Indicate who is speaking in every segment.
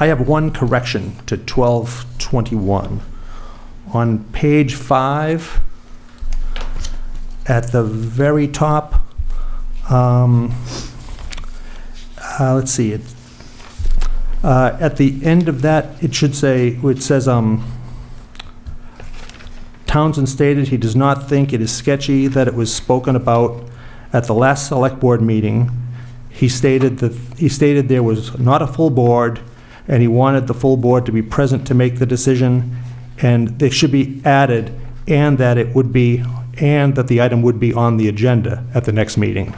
Speaker 1: I have one correction to 1221. On page five, at the very top, um, uh, let's see, it, uh, at the end of that, it should say, it says, um, Townsend stated he does not think it is sketchy that it was spoken about at the last Select Board meeting. He stated that, he stated there was not a full board, and he wanted the full board to be present to make the decision, and it should be added, and that it would be, and that the item would be on the agenda at the next meeting.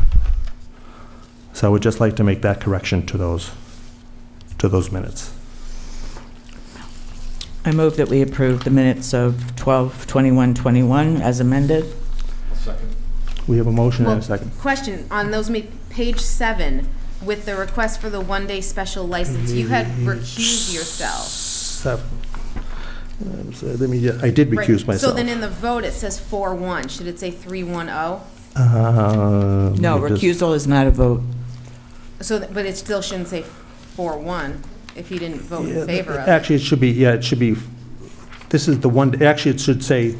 Speaker 1: So I would just like to make that correction to those, to those minutes.
Speaker 2: I move that we approve the minutes of 12, 21, 21 as amended.
Speaker 3: Second.
Speaker 1: We have a motion and
Speaker 4: Well-
Speaker 1: a second.
Speaker 4: Question, on those, ma- page seven, with the request for the one-day special license, you had
Speaker 1: Mm-hmm.
Speaker 4: recused yourself.
Speaker 1: Seven. Um, so Let me, I did
Speaker 4: Right.
Speaker 1: recuse myself.
Speaker 4: So then in the vote, it says four-one, should it say oh? three-one-oh?
Speaker 1: Um,
Speaker 2: No,
Speaker 1: it does-
Speaker 2: recusal is not a vote.
Speaker 4: So, th- but it still shouldn't say four-one, if you didn't vote
Speaker 1: Yeah,
Speaker 4: in favor of it.
Speaker 1: Actually, it should be, yeah, it should be, this is the one, actually, it should say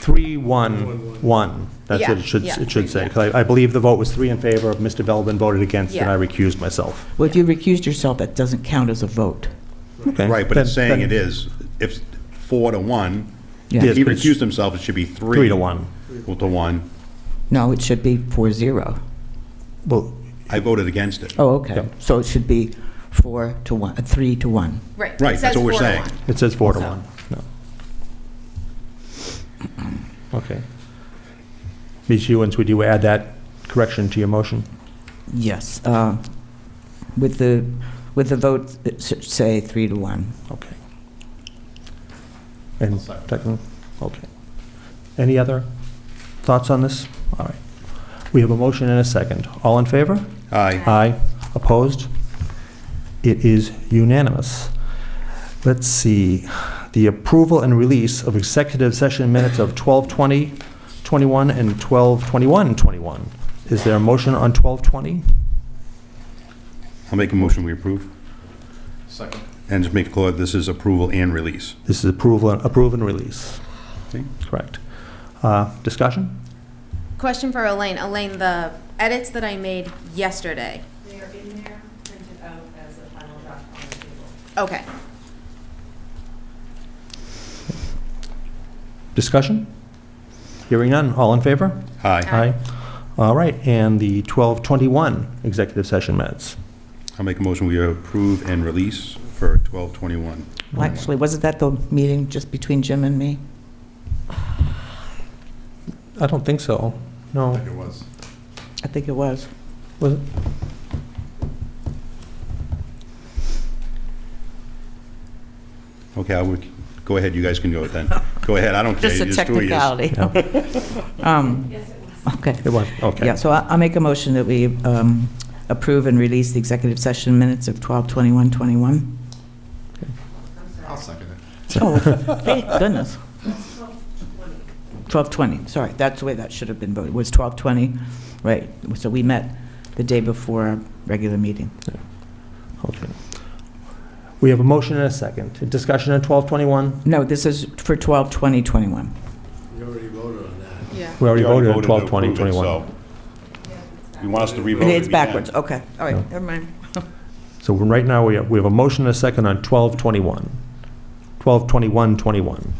Speaker 1: three, one, one. That's what
Speaker 4: Yeah,
Speaker 1: it should,
Speaker 4: yeah,
Speaker 1: it should say,
Speaker 4: yeah.
Speaker 1: 'cause I I believe the vote was three in favor, Mr. Belvin voted against, and
Speaker 4: Yeah.
Speaker 1: I recused myself.
Speaker 2: Well, if you recused yourself, that doesn't count as a vote.
Speaker 1: Okay,
Speaker 3: Right, but it's
Speaker 1: then-
Speaker 3: saying
Speaker 1: then
Speaker 3: it is, if four to one,
Speaker 2: Yeah.
Speaker 3: if he
Speaker 1: but it's-
Speaker 3: recused himself, it should be three.
Speaker 1: Three to one.
Speaker 3: To one.
Speaker 2: No, it should be four zero.
Speaker 1: Well,
Speaker 3: I voted against it.
Speaker 2: Oh, okay.
Speaker 1: Yep.
Speaker 2: So it should be four to one, uh, three to one.
Speaker 4: Right. it
Speaker 3: Right, that's
Speaker 4: says
Speaker 3: what we're
Speaker 4: four to
Speaker 3: saying.
Speaker 4: one.
Speaker 1: it says four to
Speaker 4: So-
Speaker 1: one, no. Okay. Ms. Hewens, would you add that correction to your motion?
Speaker 2: Yes. uh, With the, with the vote, it should say three to one.
Speaker 1: Okay. And second, okay. Any other thoughts on this? All right. We have a motion and a second. All in favor?
Speaker 3: Aye.
Speaker 1: Aye. Opposed? It is unanimous. Let's see, the approval and release of executive session minutes of 12:20, 21, and 12:21, 21. Is there a motion on 12:20?
Speaker 3: I'll make a motion, we approve. Second. And just make it clear, this is approval and release.
Speaker 1: This is approval, approve and release.
Speaker 3: Okay.
Speaker 1: Correct. Uh, Discussion?
Speaker 4: Question for Elaine. Elaine, the edits that I made yesterday.
Speaker 5: They are in there, printed out as a final draft on the table.
Speaker 4: Okay.
Speaker 1: Discussion? Hearing none, all in favor?
Speaker 3: Aye.
Speaker 4: Aye.
Speaker 1: All right, and the 12:21 executive session minutes.
Speaker 3: I'll make a motion, we approve and release for twelve twenty-one.
Speaker 2: Well, Actually, wasn't that the meeting just between Jim and me?
Speaker 1: I don't think so. No,
Speaker 3: it was.
Speaker 2: I think it was.
Speaker 1: was it?
Speaker 3: Okay, I would, go ahead, you guys can go with then. Go ahead, I don't care.
Speaker 2: Just a
Speaker 3: you do what you-
Speaker 2: technicality.
Speaker 1: No,
Speaker 2: Um, Okay.
Speaker 1: It was, okay.
Speaker 2: Yeah, so I- I'll make a motion that we um, approve and release the executive session minutes of 12/21/21.
Speaker 3: I'll second it.
Speaker 2: Oh, thank goodness. 12/20, sorry, that's the way that should have been voted, was 12/20, right. So we met the day before our regular meeting.
Speaker 1: Okay. We have a motion and a second. Discussion on 12:21?
Speaker 2: No, this is for 12/20/21.
Speaker 4: Yeah.
Speaker 1: We already
Speaker 3: We already
Speaker 1: voted on
Speaker 3: voted to
Speaker 1: 12:20,
Speaker 3: approve it,
Speaker 1: 21.
Speaker 3: so You want us to revote it
Speaker 2: It's
Speaker 3: again?
Speaker 2: backwards, okay, all
Speaker 1: No.
Speaker 2: right, never mind.
Speaker 1: So right now, we have, we have a motion and a second on 12:21. 12:21, 21.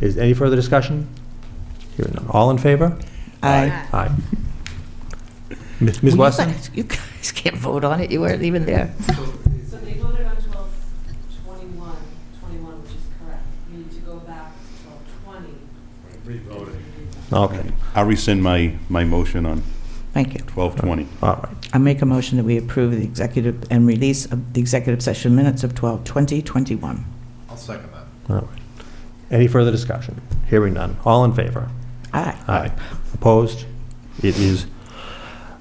Speaker 1: Is any further discussion? Hearing none, all in favor?
Speaker 2: Aye.
Speaker 1: Aye. Ms. Ms.
Speaker 6: Well, you
Speaker 1: Wesson?
Speaker 6: guys- You guys can't vote on it, you weren't even there.
Speaker 5: So they voted on twelve twenty-one, twenty-one, which is correct. You need to go back to twelve twenty. Revoted.
Speaker 1: Okay,
Speaker 3: I'll rescind my, my motion on
Speaker 2: Thank you.
Speaker 3: twelve twenty.
Speaker 1: all right.
Speaker 2: I make a motion that we approve the executive and release of the executive session minutes of 12/20/21.
Speaker 3: I'll second that.
Speaker 1: All right. Any further discussion? Hearing none. All in favor?
Speaker 2: Aye.
Speaker 1: Aye. Opposed? It is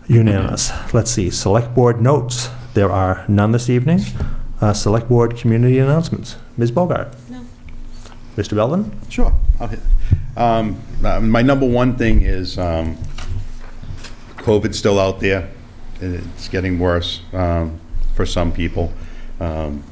Speaker 1: unanimous. Let's see, Select Board notes. There are none this evening. Uh, Select Board community announcements. Ms. Bogart?
Speaker 4: No.
Speaker 1: Mr. Belvin?
Speaker 3: Sure. I'll hit- um, uh, My number one thing is um, COVID's still out there. It's getting worse um, for some people. Um,